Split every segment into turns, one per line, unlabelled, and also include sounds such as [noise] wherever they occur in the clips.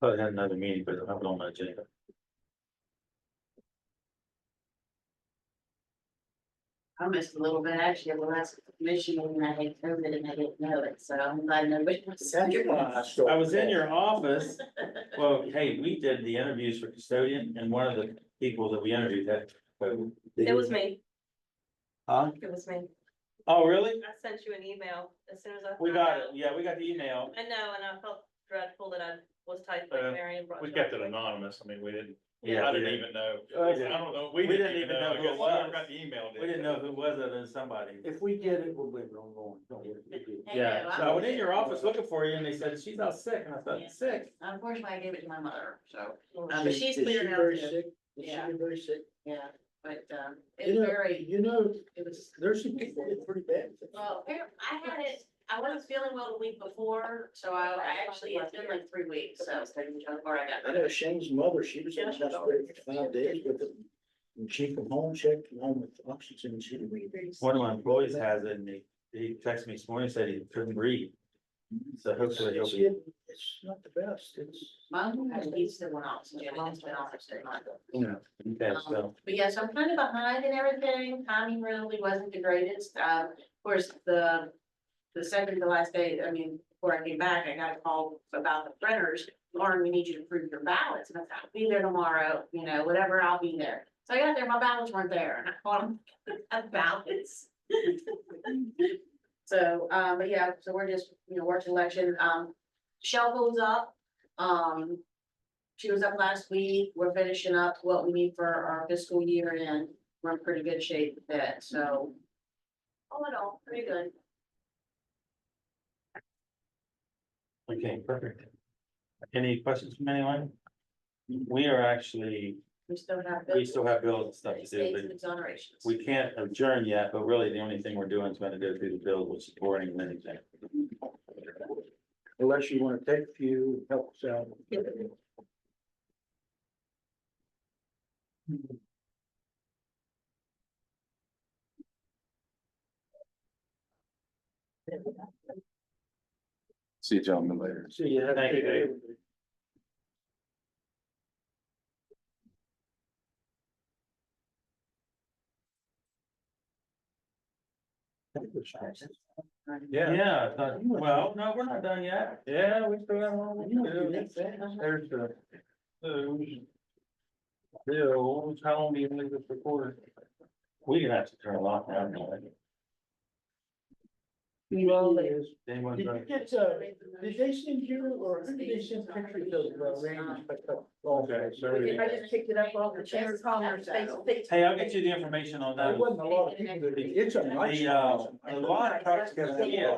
Probably had another meeting, but I'm on my agenda.
I missed a little bit, actually, the last commission when I had COVID and I didn't know it, so I'm glad nobody was.
I was in your office. Well, hey, we did the interviews for custodian and one of the people that we interviewed had. COVID.
It was me,
Huh?
it was me.
Oh, really?
I sent you an email as soon as I.
We
found
got it.
out.
Yeah, we got the email.
I know, and I felt dreadful that I was typing
Uh,
Marion. brought
We
it
kept
up.
it anonymous, I mean, we didn't,
Yeah,
I
we
didn't
didn't,
even know,
Uh,
I don't know, we didn't even know, I
who
guess
it
whoever
was.
got the email. did.
we didn't know who was it and somebody.
If we get it, we'll leave it on going. Don't worry.
Yeah, so I went in your office looking for you and they said, she's not sick. And I
Yeah.
thought, sick?
Unfortunately, I gave it to my mother, so,
Is
um, but
Oh, she-
she's
is she
cleared out,
very
too.
sick? Is she
Yeah.
very sick?
yeah, but, um,
You
it's
know-
very,
You know,
it was,
nursing people are pretty bad.
well, apparently, I had it, I wasn't feeling well the week before, so I, I actually, it's been like three weeks, so. Before I
I
got.
know Shane's mother, she was in the hospital for five days with it. And she come home, checked on with oxygen, she didn't breathe.
One of my employees has it and he, he texted me this morning, said he couldn't breathe. So hopefully he'll
It's
be.
getting- it's not the best, it's,
Mom has used the one oxygen, and it's been off for six months.
you know.
okay, so.
But yes, I'm kind of behind in everything, timing really wasn't the greatest, um, of course, the. The second to last day, I mean, before I came back, I got a call about the printers, Lauren, we need you to prove your ballots, and I thought, I'll be there tomorrow, you know, whatever, I'll be there. So I got there, my ballots weren't there, and I called them, [laughs] ballots. [laughs] So, um, but yeah, so we're just, you know, work election, um, Shell goes up, um, she was up last week, we're finishing up what we need for our fiscal year and we're in pretty good shape with that, so. All in all, pretty good.
Okay, perfect. Any questions from anyone? We are actually,
We still have.
we still have bills and stuff to do,
States
but
and exonerations.
we can't adjourn yet, but really the only thing we're doing is gonna go through the bill, which is boring and anything.
Unless you wanna take a few, help us out.
See you gentlemen later.
So you have.
Thank you, Dave.
Yeah.
Yeah, I thought- well, no, we're not done yet. Yeah, we still have one.
You know, you think
more.
that-
There's the. those. Bill, how long do you need this recorded? We can have to turn a lot down.
Did you get, uh, did they send you, or who did they send pictures of uh, Randy's pickup?
Okay, sorry.
I just
picked it
up off the Chamber of Commerce
Facebook.
Hey, I'll get you the information on
There
that.
wasn't a lot of people that did. It's a nice.
Um, The, uh, a lot of trucks
Yeah.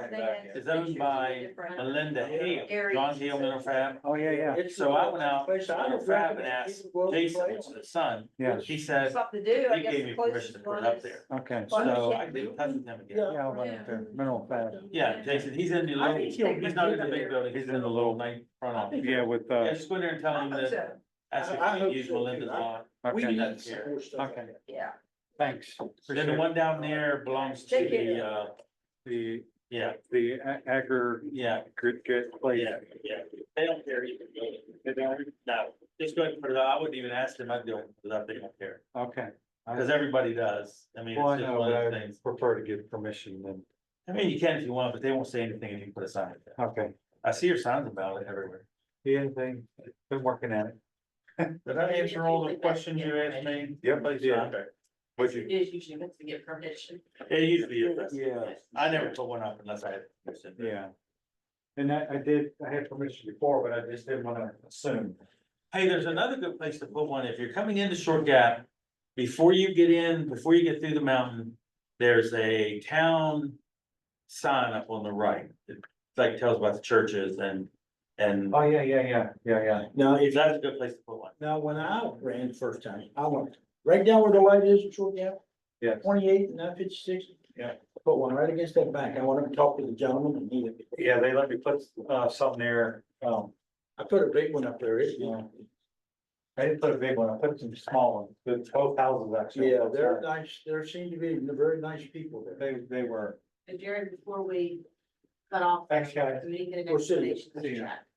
that is owned by Melinda Hale, John Hale Mineral Fab,
Oh, yeah, yeah.
It's-
So I went out,
Place I
Mineral
don't
Fab and
recommend
asked
people go to the
Jason,
place.
which is the son.
Yeah.
He said,
Something to
he gave me permission to put it up there.
Okay.
Well,
So
yeah.
I did touch with him again.
Yeah.
Yeah, I'll run up there, mineral fab.
Yeah, Jason, he's in the
I
little,
think
he's
he'll
not in the
be
big
there.
building, he's in the little night front
I
office.
think-
Yeah, with,
Yeah,
uh,
just go in there and tell him that, ask if
I- I
you
hope
can use
so,
Melinda's
too. I-
lot.
We
okay,
need
that's
some
here.
more stuff.
Okay.
Yeah.
thanks.
Then the
Appreciate it.
one down there belongs to
Take it.
the, uh,
The,
yeah,
the a- agger
yeah,
good, good place.
yeah, yeah. They don't care either. They don't, no, just go ahead and put it up. I wouldn't even ask them, I'd do it, without they don't care.
Okay.
Cause everybody does. I mean, it's just one of the things.
prefer to give permission than,
I mean, you can if you want, but they won't say anything if you put a sign up there.
okay.
I see your signs about it everywhere.
Yeah, they, been working at it.
Did I answer all the questions you asked me?
Yep, I did.
Okay.
It is usually meant to get permission.
It usually is. that's-
Yeah,
I never put one up unless I had. permission.
yeah. And I, I did, I had permission before, but I just didn't wanna assume.
Hey, there's another good place to put one. If you're coming into Short Gap, before you get in, before you get through the mountain, there's a town sign up on the right. It like tells about the churches and, and
Oh, yeah, yeah, yeah, yeah, yeah.
Now, if,
that's a good place to put one.
now, when I ran the first time, I went right down where the light is in Short Gap.
Yeah.
Twenty-eight and nine fifty-six.
Yeah.
Put one right against that bank. I went up and talked to the gentleman and he,
Yeah, they let me put, uh, something there, um,
I put a big one up there. It-
Yeah. I didn't put a big one, I put some small ones, the twelve thousands actually.
Yeah, they're nice, there seem to be very nice people there.
They, they were.
But Jared, before we cut off.
Thanks, guys.
We need to get an
We'll see you.
explanation. of the
See you.
chat.